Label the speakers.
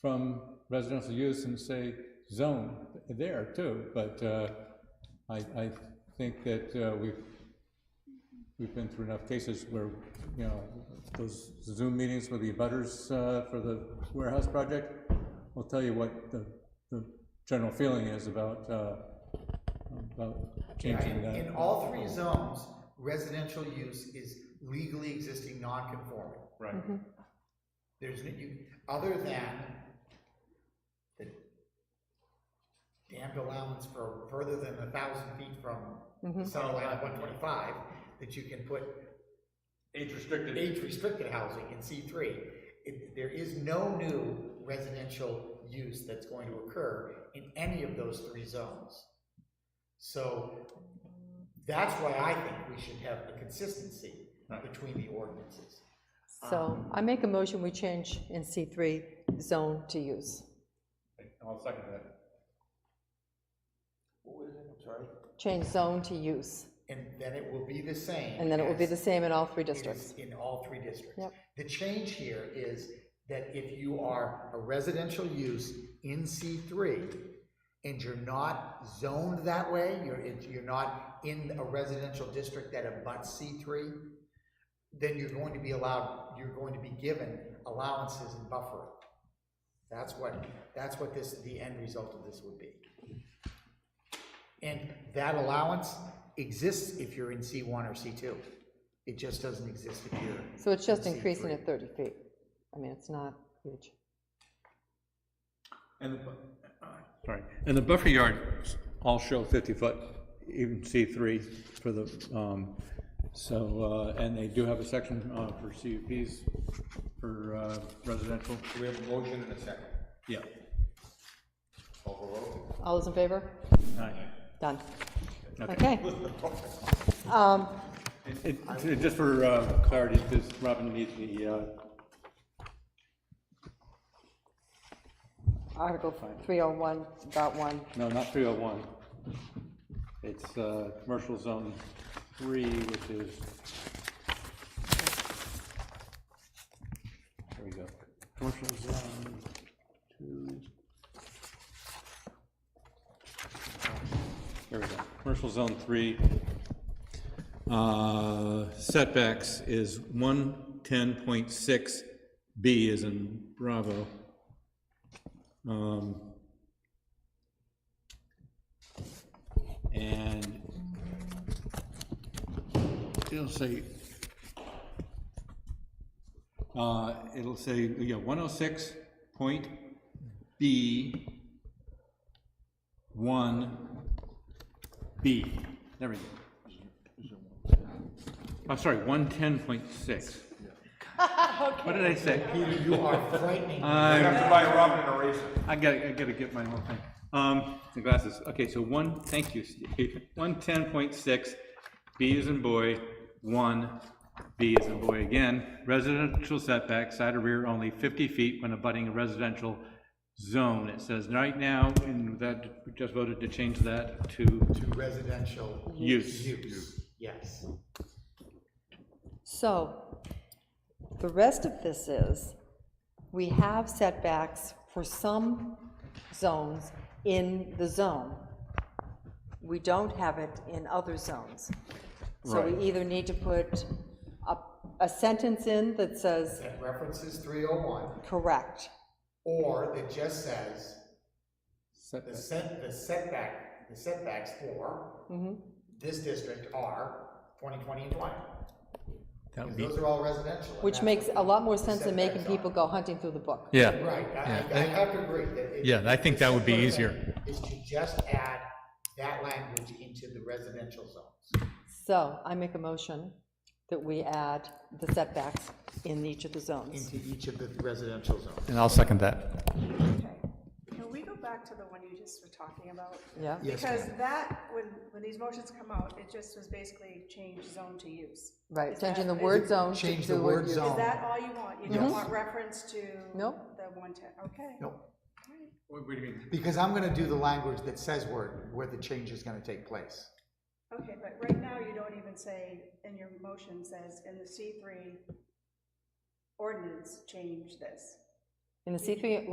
Speaker 1: from residential use and say zone there too, but uh, I, I think that uh, we've, we've been through enough cases where, you know, those Zoom meetings with the abutters uh, for the warehouse project will tell you what the, the general feeling is about, uh, about changing
Speaker 2: In,
Speaker 1: that.
Speaker 2: in all three zones, residential use is legally existing non-conforming.
Speaker 3: Right.
Speaker 2: There's, no- you, other than the damned allowance for further than a thousand feet from the center line of one twenty-five, that you can put
Speaker 3: Age restricted.
Speaker 2: age-restricted housing in C three. It, there is no new residential use that's going to occur in any of those three zones. So that's why I think we should have a consistency between the ordinances.
Speaker 4: So I make a motion, we change in C3 zone to use.
Speaker 3: I'll second that.
Speaker 4: Change zone to use,
Speaker 2: And then it will be the same.
Speaker 4: and then it will be
Speaker 2: as
Speaker 4: the same in all three
Speaker 2: it is
Speaker 4: districts.
Speaker 2: In all three districts.
Speaker 4: Yep.
Speaker 2: The change here is that if you are a residential use in C three and you're not zoned that way, you're, if you're not in a residential district that abuts C three, then you're going to be allowed, you're going to be given allowances and buffering. That's what, that's what this, the end result of this would be. And that allowance exists if you're in C one or C two. It just doesn't exist if you're
Speaker 4: So it's just
Speaker 2: in C
Speaker 4: increasing
Speaker 2: three.
Speaker 4: it 30 feet. I mean, it's not huge.
Speaker 3: And the, bu-
Speaker 1: Sorry, and the buffer yards all show fifty foot, even C three for the, um, so, uh, and they do have a section, uh, for CUPs for, uh, residential,
Speaker 3: we have a motion and a second.
Speaker 1: yeah.
Speaker 3: Call for a vote.
Speaker 4: All those in favor?
Speaker 1: Aye.
Speaker 4: Done.
Speaker 1: Okay.
Speaker 4: Okay. Um,
Speaker 1: It- it- Just for uh, clarity, this, Robin needs the, uh,
Speaker 4: Article 301, dot 1,
Speaker 1: no, not three oh one. It's, uh, commercial zone three, which is. There we go. Commercial zone two. There we go. Commercial zone three. Uh, setbacks is one ten point six B is in Bravo. Um, And it'll say, uh, it'll say, yeah, one oh six point B, one B, there we go. I'm sorry, one ten point six. What did I say?
Speaker 2: You are frightening.
Speaker 3: You have to buy Robin an eraser.
Speaker 1: I gotta, I gotta get my whole thing. Um, the glasses, okay, so one, thank you, Steve. One ten point six, B is in boy, one, B is in boy again. Residential setback, side or rear only fifty feet when abutting a residential zone. It says right now, and that, we just voted to change that to
Speaker 2: To residential
Speaker 1: use.
Speaker 2: use, yes.
Speaker 4: So, the rest of this is, we have setbacks for some zones in the zone. We don't have it in other zones. So we either need to put a, a sentence in that says,
Speaker 2: That references three oh one,
Speaker 4: correct,
Speaker 2: or that just says
Speaker 1: setback.
Speaker 2: the set, the setback, the setbacks for this district are twenty, twenty, and twenty.
Speaker 1: That
Speaker 2: Because
Speaker 1: would be-
Speaker 2: those are all residential. and
Speaker 4: which
Speaker 2: that's
Speaker 4: makes
Speaker 2: what
Speaker 4: a lot more sense than
Speaker 2: setbacks
Speaker 4: making
Speaker 2: are.
Speaker 4: people go hunting through the book.
Speaker 5: Yeah,
Speaker 2: Right, I, I- I
Speaker 5: Yeah, I-
Speaker 2: have to agree that. it-
Speaker 5: Yeah, I think that would be
Speaker 2: the
Speaker 5: easier.
Speaker 2: simplest thing Is to just add that language into the residential zones.
Speaker 4: So, I make a motion that we add the setbacks in each of the zones.
Speaker 2: Into each of the residential zones.
Speaker 5: and I'll second that.
Speaker 6: Okay. Can we go back to the one you just were talking about?
Speaker 4: Yeah?
Speaker 2: Yes,
Speaker 6: Because
Speaker 2: ma'am.
Speaker 6: that, when, when these motions come out, it just was basically change zone to use.
Speaker 4: Right,
Speaker 6: Is
Speaker 4: changing the
Speaker 6: that-
Speaker 4: word
Speaker 6: is-
Speaker 4: zone to
Speaker 2: Change
Speaker 4: the word use.
Speaker 6: Is that all you want? You
Speaker 2: Um, Yes.
Speaker 6: don't want reference to
Speaker 4: Nope.
Speaker 6: the one-ten, okay?
Speaker 2: Nope.
Speaker 3: What what do you mean?
Speaker 2: Because I'm gonna do the language that says where, where the change is gonna take place.
Speaker 6: Okay, but right now, you don't even say, in your motion says, in the C three ordinance, change this.
Speaker 4: In the C3